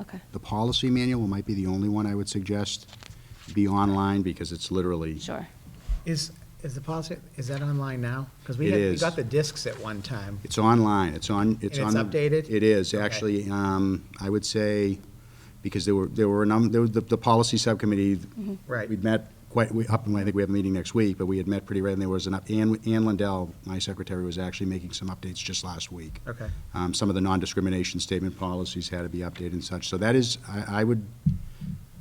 Okay. The policy manual might be the only one I would suggest be online, because it's literally, Sure. Is, is the policy, is that online now? Because It we had, we is. got the discs at one time. it's online, it's on, it's on. Um, And it's the- updated? It is, Okay. actually, um, I would say, because there were, there were a number, there was the, the policy subcommittee. Mm-hmm. Right. We'd met quite, we, up, and I think we have a meeting next week, but we had met pretty regularly, and there was an, up- Ann, Ann Lindell, my secretary, was actually making some updates just last week. Okay. Um, some of the non-discrimination statement policies had to be updated and such, so that is, I, I would,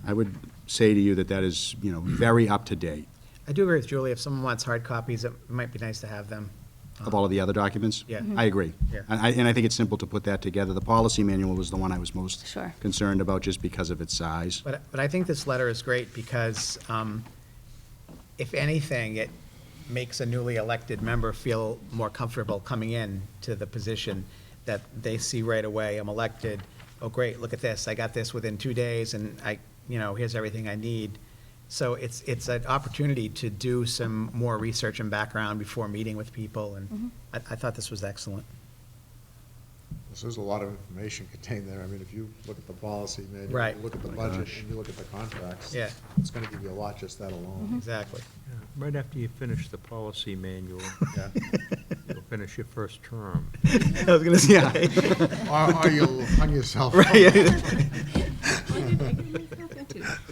I would say to you that that is, you know, very up to date I do agree with Julie, if someone wants hard copies, it might be nice to have them. of all of the other documents. Mm-hmm. Yeah. Mhm. I agree. Yeah. And I, and I think it's simple to put that together. The policy manual was the one I was most Sure. concerned about, just because of its size. But, but I think this letter is great because, um, if anything, it makes a newly elected member feel more comfortable coming in to the position that they see right away, I'm elected, oh, great, look at this, I got this within two days and I, you know, here's everything I need. So it's, it's an opportunity to do some more research and background before meeting with people and I, I thought this was excellent. So There's a lot of information contained there. I mean, if you look at the policy manual, Right. you look at the My budget, gosh. and you look at the contracts. Yeah. It's gonna give you a lot, just that alone. Exactly. Yeah, Right after you finish the policy manual, Yeah. you'll finish your first term. I was gonna Yeah. say. Or, or you'll hung yourself.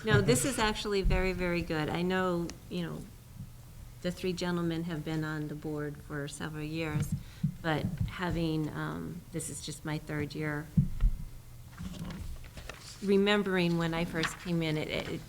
No, this is actually very, very good. I know, you know, the three gentlemen have been on the board for several years, but having, um, this is just my third year, remembering when I first came in, it, it,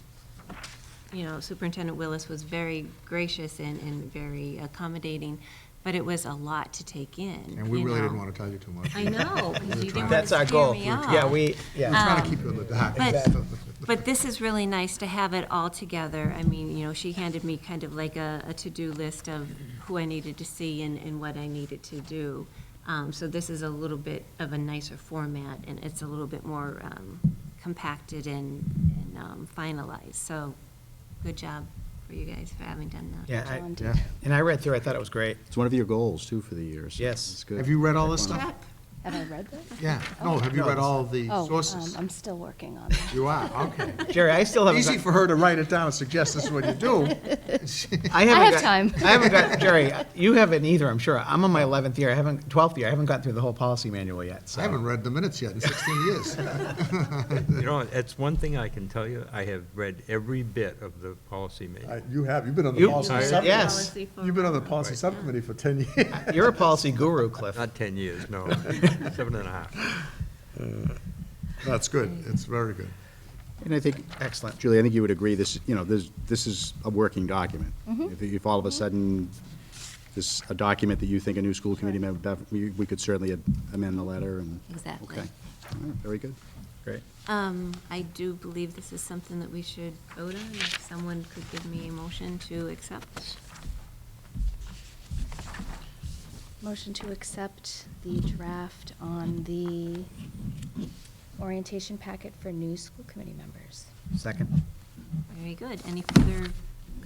you know, Superintendent Willis was very gracious and, and very accommodating, but it was a lot to take in. And we you really didn't know. wanna tell you too much. I know, 'cause you didn't That's our scare goal. me off. Yeah, we, yeah. We're trying to keep you in the dark. Um, But, but this is really nice to have it all together. I mean, you know, she handed me kind of like a, a to-do list of who I needed to see and, and what I needed to do. Um, so this is a little bit of a nicer format, and it's a little bit more, um, compacted and, and um, finalized. So, good job for you guys for having done that. Yeah, I- John, do- Yeah. and I read through, I thought it was great. It's one of your goals, too, for the years. Yes. It's good. Have you read all Check this on it. stuff? Have I read that? Yeah. No, have you No, read this- all the Oh, um, sources? I'm still working on it. You are, okay. Jerry, I still haven't. Easy got- for her to write it down and suggest this is what you do. haven't I have got- time. I haven't got, Jerry, you haven't either, I'm sure. I'm on my 11th year, I haven't, 12th year, I haven't gotten through the whole policy manual yet, so. I haven't read the minutes yet in sixteen years. You know, that's one thing I can tell you, I have read every bit of the policy manual. I- You have, you've been on the You- policy Tired? subcommittee. Yes. You've been on the policy subcommittee for ten years. You're a policy guru, Cliff. Not 10 years, no, seven and a half. That's good. It's very good. And I think, Excellent. Julie, I think you would agree, this, you know, this, this is a working document. If, if all of a sudden, this, a document that you think a new school committee member, we we could certainly amend the letter and. Exactly. Okay. All right, Very good. Great. Um, I do believe this is something that we should vote on, if someone could give me a motion to accept. Motion to accept the draft on the orientation packet for new school committee members. Second. Very good. Any further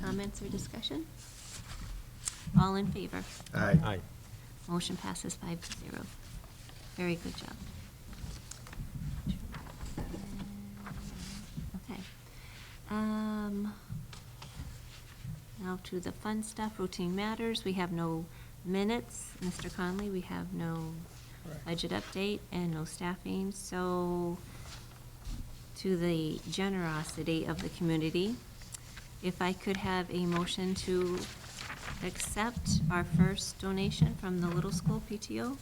comments or discussion? All in favor? Aye. Aye. Motion passes five to zero. Very good job. Okay. Um, Now to the fun stuff, routine matters. We have no minutes, Mr. Conley, we have no budget update and no staffing. So to the generosity of the community, if I could have a motion to accept our first donation from the Little School PTO.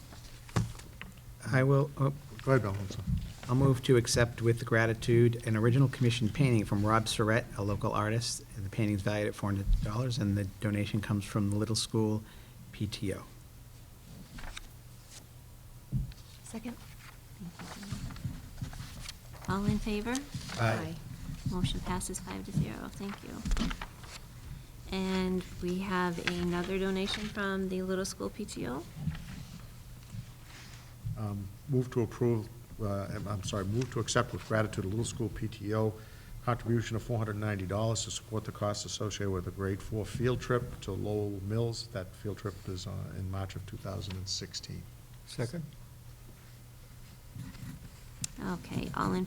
I will, oh, Go ahead, Bill. I'm sorry. I'll move to accept with gratitude an original commissioned painting from Rob Surratt, a local artist. The painting's valued at $400, and the donation comes from the Little School PTO. Second. All in favor? Aye. Motion passes five to zero, thank you. And we have another donation from the Little School PTO. Um, Move to approve, uh, I'm I'm sorry, move to accept with gratitude a Little School PTO contribution of $490 to support the costs associated with a grade four field trip to Lowell Mills. That field trip is uh, in March of 2016. Second? Okay, all in